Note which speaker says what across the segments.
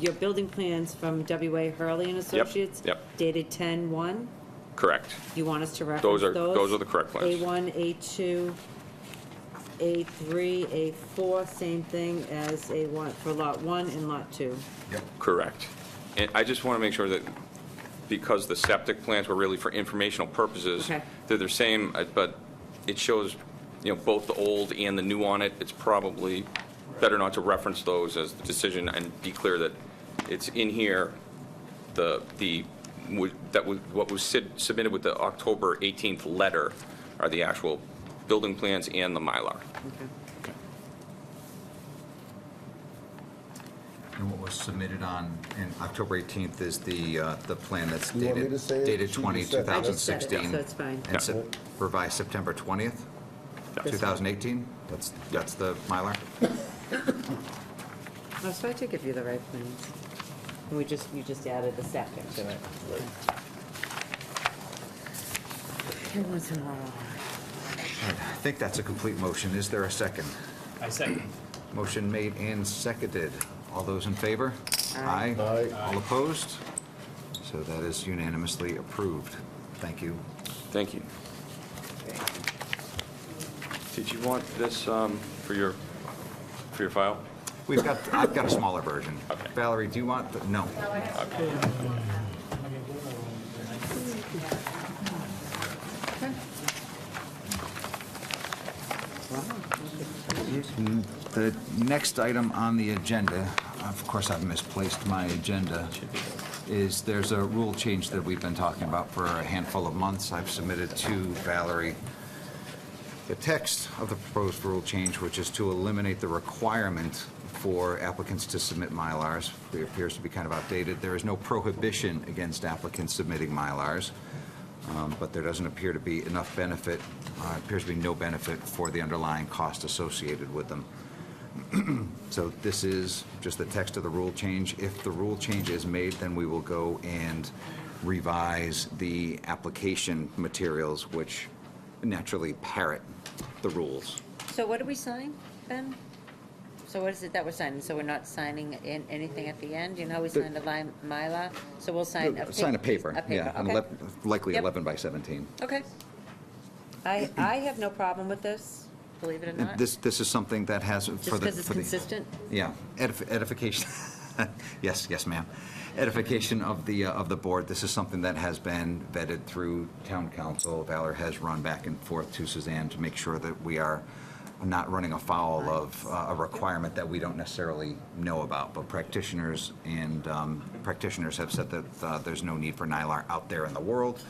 Speaker 1: your building plans from W.A. Hurley and Associates?
Speaker 2: yep.
Speaker 1: Dated 10-1?
Speaker 2: Correct.
Speaker 1: You want us to reference those?
Speaker 2: Those are- those are the correct plans.
Speaker 1: A1, A2, A3, A4, same thing as A1, for Lot 1 and Lot 2.
Speaker 3: Yep.
Speaker 2: Correct. And I just want to make sure that, because the septic plans were really for informational purposes,
Speaker 1: Okay.
Speaker 2: they're the same, uh, but it shows, you know, both the old and the new on it. It's probably better not to reference those as the decision and be clear that it's in here, the, the, would- that was, what was sid- submitted with the October 18th letter are the actual building plans and the Mylar.
Speaker 1: Okay.
Speaker 3: And what was submitted on, in October 18th is the, uh, the plan that's
Speaker 4: You want me
Speaker 3: dated,
Speaker 4: to say it?
Speaker 3: dated
Speaker 4: She
Speaker 3: 20,
Speaker 4: just said it.
Speaker 1: I just said it,
Speaker 3: 2016.
Speaker 1: so it's fine.
Speaker 2: Yeah.
Speaker 3: And se- revised September 20th,
Speaker 1: This one.
Speaker 3: 2018? That's, that's the Mylar?
Speaker 1: Oh, So I did give you the right plans. And We just, you just added the septic to it. Every once in a while.
Speaker 3: I think that's a complete motion. Is there a second?
Speaker 5: I second.
Speaker 3: Motion made and seconded. All those in favor?
Speaker 1: Aye.
Speaker 4: Aye.
Speaker 3: All opposed? So that is unanimously approved. Thank you.
Speaker 2: Thank you. Did you want this um, for your, for your file?
Speaker 3: We've got, I've got a smaller version.
Speaker 2: Okay.
Speaker 3: Valerie, do you want, the- no. The next item on the agenda, of course, I've misplaced my agenda, is there's a rule change that we've been talking about for a handful of months. I've submitted to Valerie the text of the proposed rule change, which is to eliminate the requirement for applicants to submit Mylars. It appears to be kind of outdated. There is no prohibition against applicants submitting Mylars, um, but there doesn't appear to be enough benefit, uh, appears to be no benefit for the underlying cost associated with them. So this is just the text of the rule change. If the rule change is made, then we will go and revise the application materials, which naturally parrot the rules.
Speaker 6: So what do we sign, Ben? So what is it that we're signing? So we're not signing in anything at the end? You know, we signed a line, Mylar, so we'll sign a.
Speaker 3: Uh, Sign a paper,
Speaker 6: A
Speaker 3: yeah,
Speaker 6: paper,
Speaker 3: an
Speaker 6: okay.
Speaker 3: elep- likely
Speaker 6: Yep.
Speaker 3: 11 by 17.
Speaker 6: Okay. I, I have no problem with this, believe it or
Speaker 3: And
Speaker 6: not.
Speaker 3: This, this is something that has for the.
Speaker 6: Just because it's
Speaker 3: for the-
Speaker 6: consistent?
Speaker 3: Yeah, edif- edification, yes, yes, ma'am. Edification of the, uh, of the board, this is something that has been vetted through town council. Valor has run back and forth to Suzanne to make sure that we are not running afoul of uh, a requirement that we don't necessarily know about. But practitioners and um, practitioners have said that uh, there's no need for Nylar out there in the world.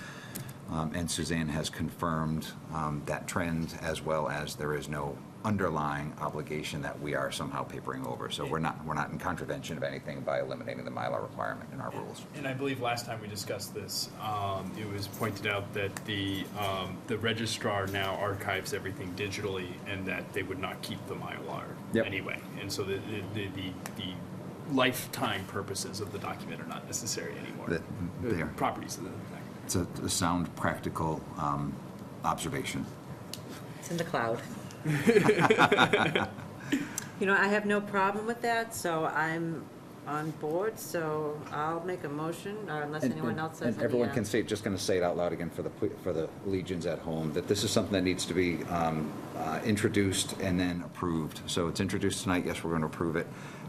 Speaker 3: Um, And Suzanne has confirmed um, that trend, as well as there is no underlying obligation that we are somehow papering over. So we're not, we're not in contravention of anything by eliminating the Mylar requirement in our rules.
Speaker 5: And I believe last time we discussed this, um, it was pointed out that the, um, the registrar now archives everything digitally and that they would not keep the Mylar
Speaker 3: Yep.
Speaker 5: anyway. And so the, the, the, the- the lifetime purposes of the document are not necessary anymore.
Speaker 3: That- they are.
Speaker 5: The Properties of the document.
Speaker 3: It's a a sound, practical um, observation.
Speaker 6: It's in the cloud.
Speaker 1: You know, I have no problem with that, so I'm on board, so I'll make a motion,
Speaker 6: uh,
Speaker 1: or unless anyone else has any.
Speaker 3: And everyone
Speaker 1: uh,
Speaker 3: can say, just going to say it out loud again for the, pu- for the legions at home, that this is something that needs to be um, uh, introduced and then approved. So it's introduced tonight, yes, we're going to approve it,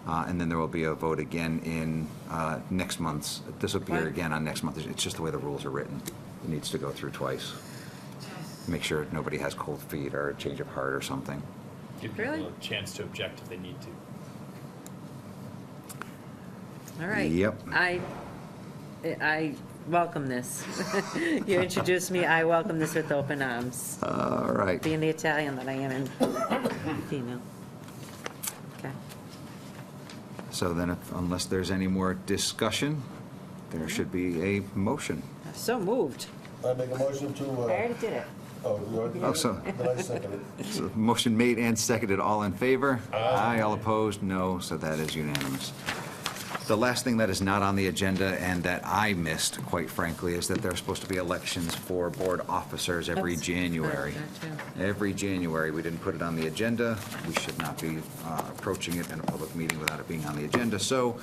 Speaker 3: uh, and then there will be a vote again in uh, next month's, this will appear
Speaker 1: Right.
Speaker 3: again on next month, it's just the way the rules are written. It needs to go through twice. Make sure nobody has cold feet or a change of heart or something.
Speaker 5: Give
Speaker 1: Really?
Speaker 5: people a chance to object if they need to.
Speaker 1: All right.
Speaker 3: Yep.
Speaker 1: I, I welcome this. You introduced me, I welcome this with open arms,
Speaker 3: All right.
Speaker 1: being the Italian that I am and female. Okay.
Speaker 3: So then, if- unless there's any more discussion, there should be a motion.
Speaker 1: So moved.
Speaker 4: I make a motion to,
Speaker 1: I already
Speaker 4: uh,
Speaker 1: did it.
Speaker 4: oh, you already did
Speaker 3: Oh,
Speaker 4: it?
Speaker 3: so-
Speaker 4: Then I second it.
Speaker 3: So Motion made and seconded, all in favor? Aye. All opposed? No, so that is unanimous. The last thing that is not on the agenda and that I missed, quite frankly, is that there are supposed to be elections for board officers every
Speaker 1: That's-
Speaker 3: January.
Speaker 1: Gotcha.
Speaker 3: Every January, we didn't put it on the agenda. We should not be uh, approaching it in a public meeting without it being on the agenda. So